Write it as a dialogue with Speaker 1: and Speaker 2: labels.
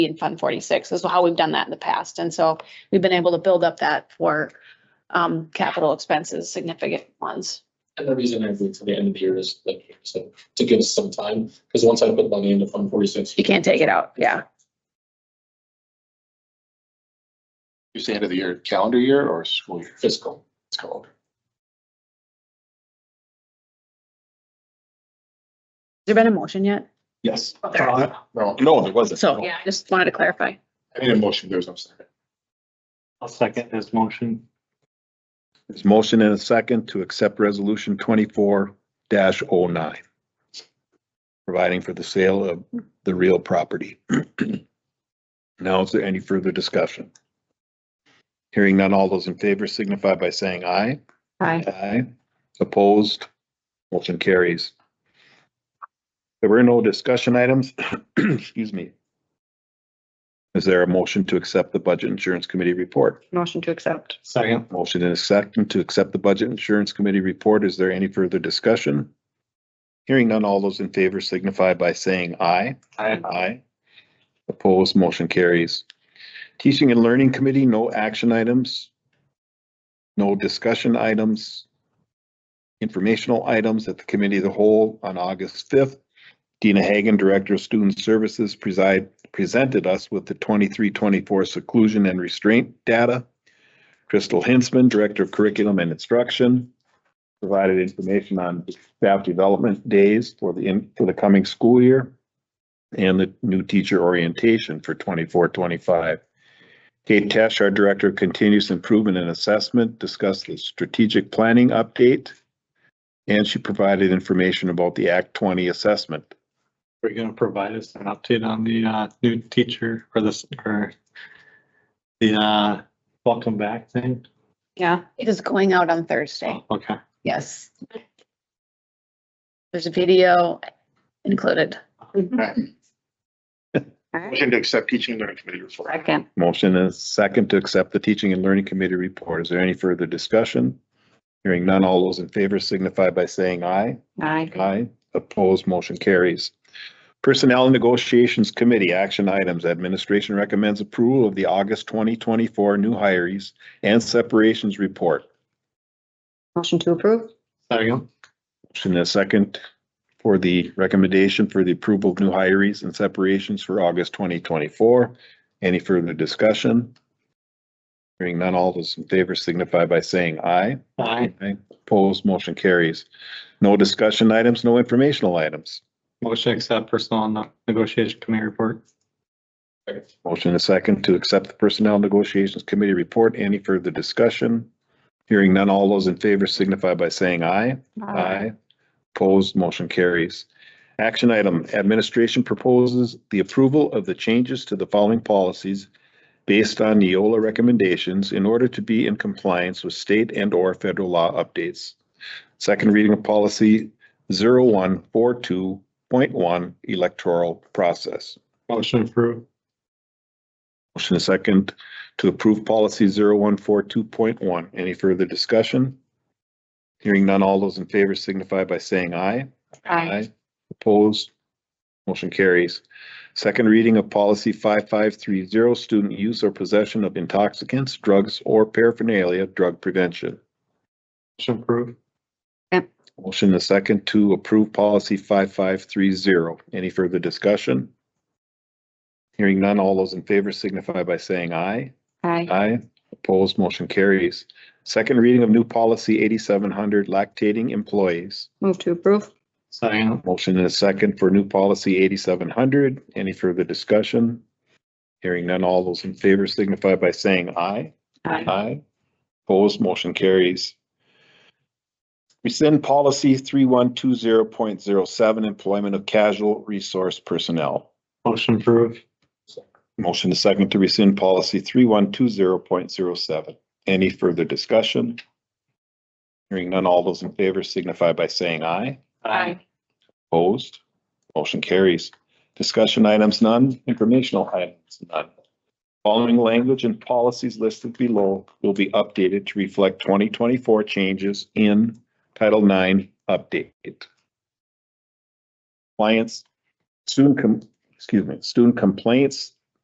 Speaker 1: in Fund forty-six is how we've done that in the past. And so we've been able to build up that for um, capital expenses, significant ones.
Speaker 2: And the reason I wait till the end of the year is like, you said, to give us some time, because once I put money into Fund forty-six.
Speaker 1: You can't take it out. Yeah.
Speaker 3: You say end of the year, calendar year or school year?
Speaker 2: Fiscal.
Speaker 3: It's called.
Speaker 1: Has there been a motion yet?
Speaker 3: Yes.
Speaker 1: There.
Speaker 3: No, no, there wasn't.
Speaker 1: So, yeah, I just wanted to clarify.
Speaker 3: I need a motion, there's no second.
Speaker 4: I'll second his motion.
Speaker 5: There's motion and a second to accept resolution twenty-four 9 Providing for the sale of the real property. Now, is there any further discussion? Hearing none, all those in favor signify by saying aye.
Speaker 1: Hi.
Speaker 5: Aye. Opposed? Motion carries. There were no discussion items. Excuse me. Is there a motion to accept the Budget Insurance Committee report?
Speaker 1: Motion to accept.
Speaker 4: Second.
Speaker 5: Motion and a second to accept the Budget Insurance Committee report. Is there any further discussion? Hearing none, all those in favor signify by saying aye.
Speaker 4: Aye.
Speaker 5: Aye. Opposed, motion carries. Teaching and Learning Committee, no action items. No discussion items. Informational items at the Committee of the Whole on August fifth. Dina Hagan, Director of Student Services, preside, presented us with the 23-24 seclusion and restraint data. Crystal Hinsman, Director of Curriculum and Instruction, provided information on staff development days for the, in- for the coming school year and the new teacher orientation for 24-25. Kate Tesh, our Director of Continuous Improvement and Assessment, discussed the strategic planning update. And she provided information about the Act twenty assessment.
Speaker 4: Are you gonna provide us an update on the uh new teacher or this or the uh welcome back thing?
Speaker 1: Yeah, it is going out on Thursday.
Speaker 4: Oh, Okay,
Speaker 1: Yes. There's a video included.
Speaker 3: Motion to accept teaching and learning committee report.
Speaker 1: Second.
Speaker 5: Motion and a second to accept the Teaching and Learning Committee report. Is there any further discussion? Hearing none, all those in favor signify by saying aye.
Speaker 1: Aye.
Speaker 5: Aye. Opposed, motion carries. Personnel and Negotiations Committee, action items. Administration recommends approval of the August twenty twenty-four new hires and separations report.
Speaker 1: Motion to approve.
Speaker 4: second.
Speaker 5: Motion and a second for the recommendation for the approval of new hires and separations for August twenty twenty-four. Any further discussion? Hearing none, all those in favor signify by saying aye.
Speaker 4: Aye.
Speaker 5: Aye. Opposed, motion carries. No discussion items, no informational items.
Speaker 4: Motion to accept personal and negotiation committee report.
Speaker 5: Motion and a second to accept the Personnel Negotiations Committee report. Any further discussion? Hearing none, all those in favor signify by saying aye. Aye. Opposed, motion carries. Action item, administration proposes the approval of the changes to the following policies based on Neola recommendations in order to be in compliance with state and or federal law updates. Second reading of policy 0142.1 electoral process.
Speaker 4: Motion approved.
Speaker 5: Motion is second to approve policy 0142.1. Any further discussion? Hearing none, all those in favor signify by saying aye. Opposed? Motion carries. Second reading of policy five five three zero, student use or possession of intoxicants, drugs, or paraphernalia, drug prevention.
Speaker 4: Motion approved.
Speaker 5: Motion is second to approve policy five five three zero. Any further discussion? Hearing none, all those in favor signify by saying aye.
Speaker 1: Aye.
Speaker 5: Aye. Opposed, motion carries. Second reading of new policy eighty-seven hundred lactating employees.
Speaker 1: Move to approve.
Speaker 4: Second.
Speaker 5: Motion and a second for new policy eighty-seven hundred. Any further discussion? Hearing none, all those in favor signify by saying aye. Aye. Opposed, motion carries. Rescind policy three one two zero point zero seven, employment of casual resource personnel.
Speaker 4: Motion approved.
Speaker 5: Motion to second to rescind policy three one two zero point zero seven. Any further discussion? Hearing none, all those in favor signify by saying aye. Opposed? Motion carries. Discussion items none, informational items none. Following language and policies listed below will be updated to reflect twenty twenty-four changes in Title IX update. Clients, student com, excuse me, student complaints